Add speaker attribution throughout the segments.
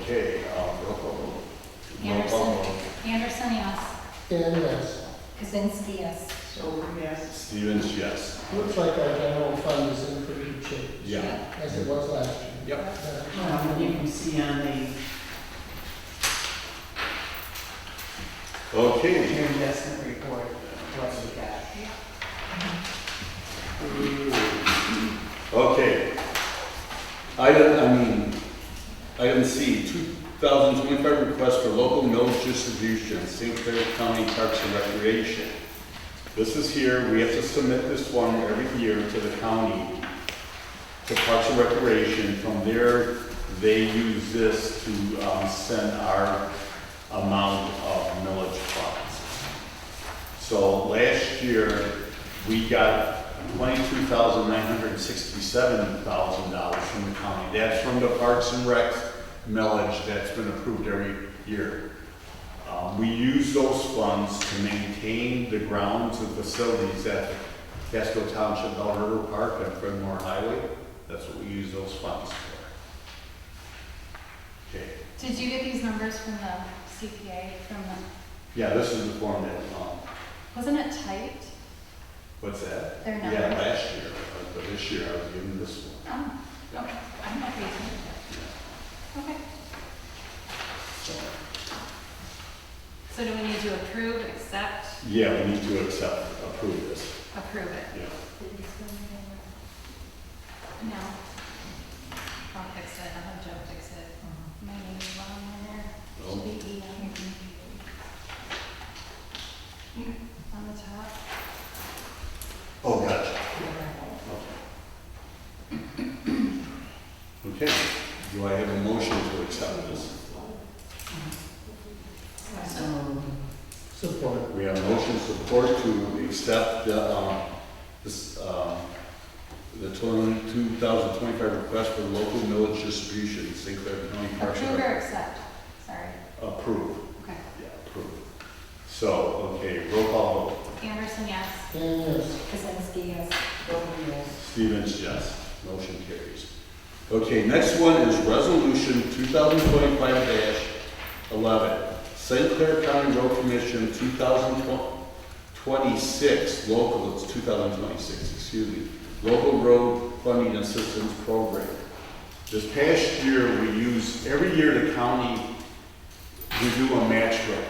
Speaker 1: Okay, um, roll call vote.
Speaker 2: Anderson.
Speaker 1: Roll call vote.
Speaker 2: Anderson, yes.
Speaker 3: Dan, yes.
Speaker 2: Kazinsky, yes.
Speaker 4: So, yes.
Speaker 1: Stevens, yes.
Speaker 3: Looks like our general fund is in pretty good shape,
Speaker 1: Yeah.
Speaker 3: as it was last year.
Speaker 1: Yep.
Speaker 3: Uh,
Speaker 4: Well, um, you can see on the,
Speaker 1: Okay.
Speaker 4: your investment report, what you got.
Speaker 1: Okay. Item, I mean, item C, 2025 request for local millage distribution, St. Clair County Parks and Recreation. This is here, we have to submit this one every year to the county, to Parks and Recreation. From there, they use this to um, send our amount of millage funds. So last year, we got twenty-two thousand nine hundred and sixty-seven thousand dollars from the county. That's from the Parks and Rec millage that's been approved every year. Um, we use those funds to maintain the grounds and facilities at Casco Township, Bell River Park, and Fredmore Highway. That's what we use those funds for. Okay,
Speaker 2: Did you get these numbers from the CPA, from the,
Speaker 1: yeah, this is the form that, um,
Speaker 2: wasn't it typed,
Speaker 1: what's that?
Speaker 2: their numbers?
Speaker 1: Yeah, last year, uh, but this year I was given this one.
Speaker 2: Oh, okay, I'm not reading it. Okay, so do we need to approve, accept,
Speaker 1: Yeah, we need to accept, approve this,
Speaker 2: approve it?
Speaker 1: yeah.
Speaker 2: No. I'll fix it, I'll have Joe fix it. My name's wrong on there. Should be E on- E. On the top.
Speaker 1: Oh, gotcha. Okay, do I have a motion to accept this?
Speaker 4: So,
Speaker 3: Support.
Speaker 1: We have motion support to accept the, um, this, um, the two thousand twenty-five request for local millage distribution, St. Clair County Parks and
Speaker 2: Approve
Speaker 1: Rec.
Speaker 2: or accept, sorry.
Speaker 1: Approve,
Speaker 2: Okay.
Speaker 1: yeah, approve. So, okay, roll call vote.
Speaker 2: Anderson, yes.
Speaker 3: Dan, yes.
Speaker 2: Kazinsky, yes.
Speaker 4: vote yes.
Speaker 1: Stevens, yes. Motion carries. Okay, next one is Resolution 2025-11, St. Clair County Road Commission 2026, local, it's 2026, excuse me, Local Road Funding Assistance Program. This past year, we use, every year the county, we do a match grant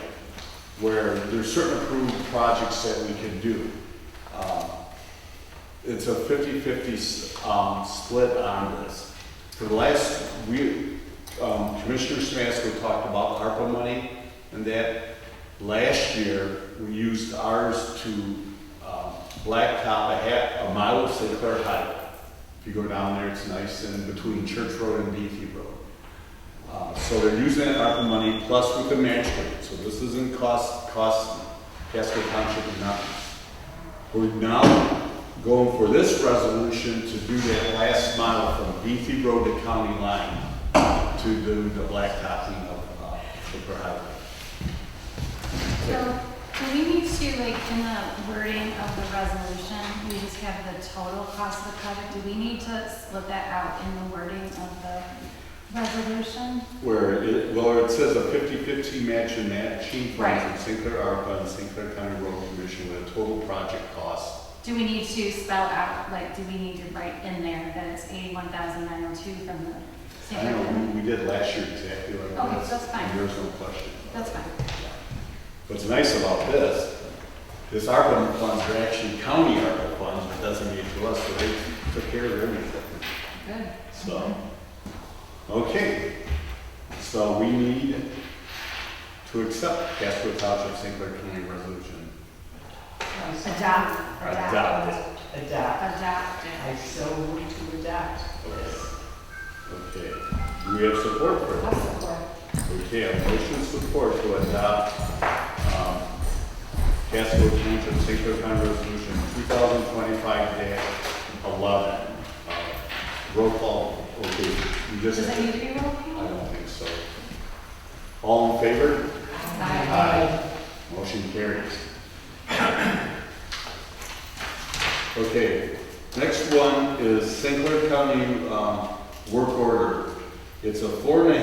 Speaker 1: where there's certain approved projects that we can do. Um, it's a 50/50 um, split on this. For the last, we, um, Commissioner Smasko talked about ARPA money, and that last year, we used ours to um, blacktop a half, a mile of St. Clair Highway. If you go down there, it's nice, and between Church Road and Beatty Road. Uh, So they're using that ARPA money plus with the match grant, so this isn't cost, cost, Casco Township is not. We're now going for this resolution to do that last mile from Beatty Road to County Line to do the blacktopping of, uh, Cooper Highway.
Speaker 2: So, do we need to, like, in the wording of the resolution, we just have the total cost of the project? Do we need to split that out in the wording of the resolution?
Speaker 1: Where it, well, it says a 50/50 match and matching funds
Speaker 2: Right.
Speaker 1: from St. Clair ARPA and St. Clair County Road Commission with a total project cost.
Speaker 2: Do we need to spell out, like, do we need to write in there that it's eighty-one thousand nine oh two from the
Speaker 1: I know,
Speaker 2: St.
Speaker 1: we, we did last year exactly like this.
Speaker 2: Okay, Oh, that's fine.
Speaker 1: There's no question.
Speaker 2: That's fine.
Speaker 1: What's nice about this, this ARPA funds are actually county ARPA funds, but doesn't mean to us, so they took care of everything.
Speaker 2: Good.
Speaker 1: So, okay, so we need to accept Casco Township St. Clair County Resolution.
Speaker 2: Adopt.
Speaker 1: Adopt it.
Speaker 4: Adopt.
Speaker 2: Adopt
Speaker 4: I
Speaker 2: it.
Speaker 4: so move to adopt.
Speaker 1: Okay, do we have support for
Speaker 2: I'll support.
Speaker 1: it? Okay, a motion support to adopt, um, Casco Township St. Clair County Resolution two thousand twenty-five eleven. Uh, Roll call, okay, you just,
Speaker 2: Does that need
Speaker 1: I
Speaker 2: to be roll call?
Speaker 1: don't think so. All in favor?
Speaker 2: Aye.
Speaker 1: Motion carries. Okay, next one is St. Clair County um, Work Order. It's a four and a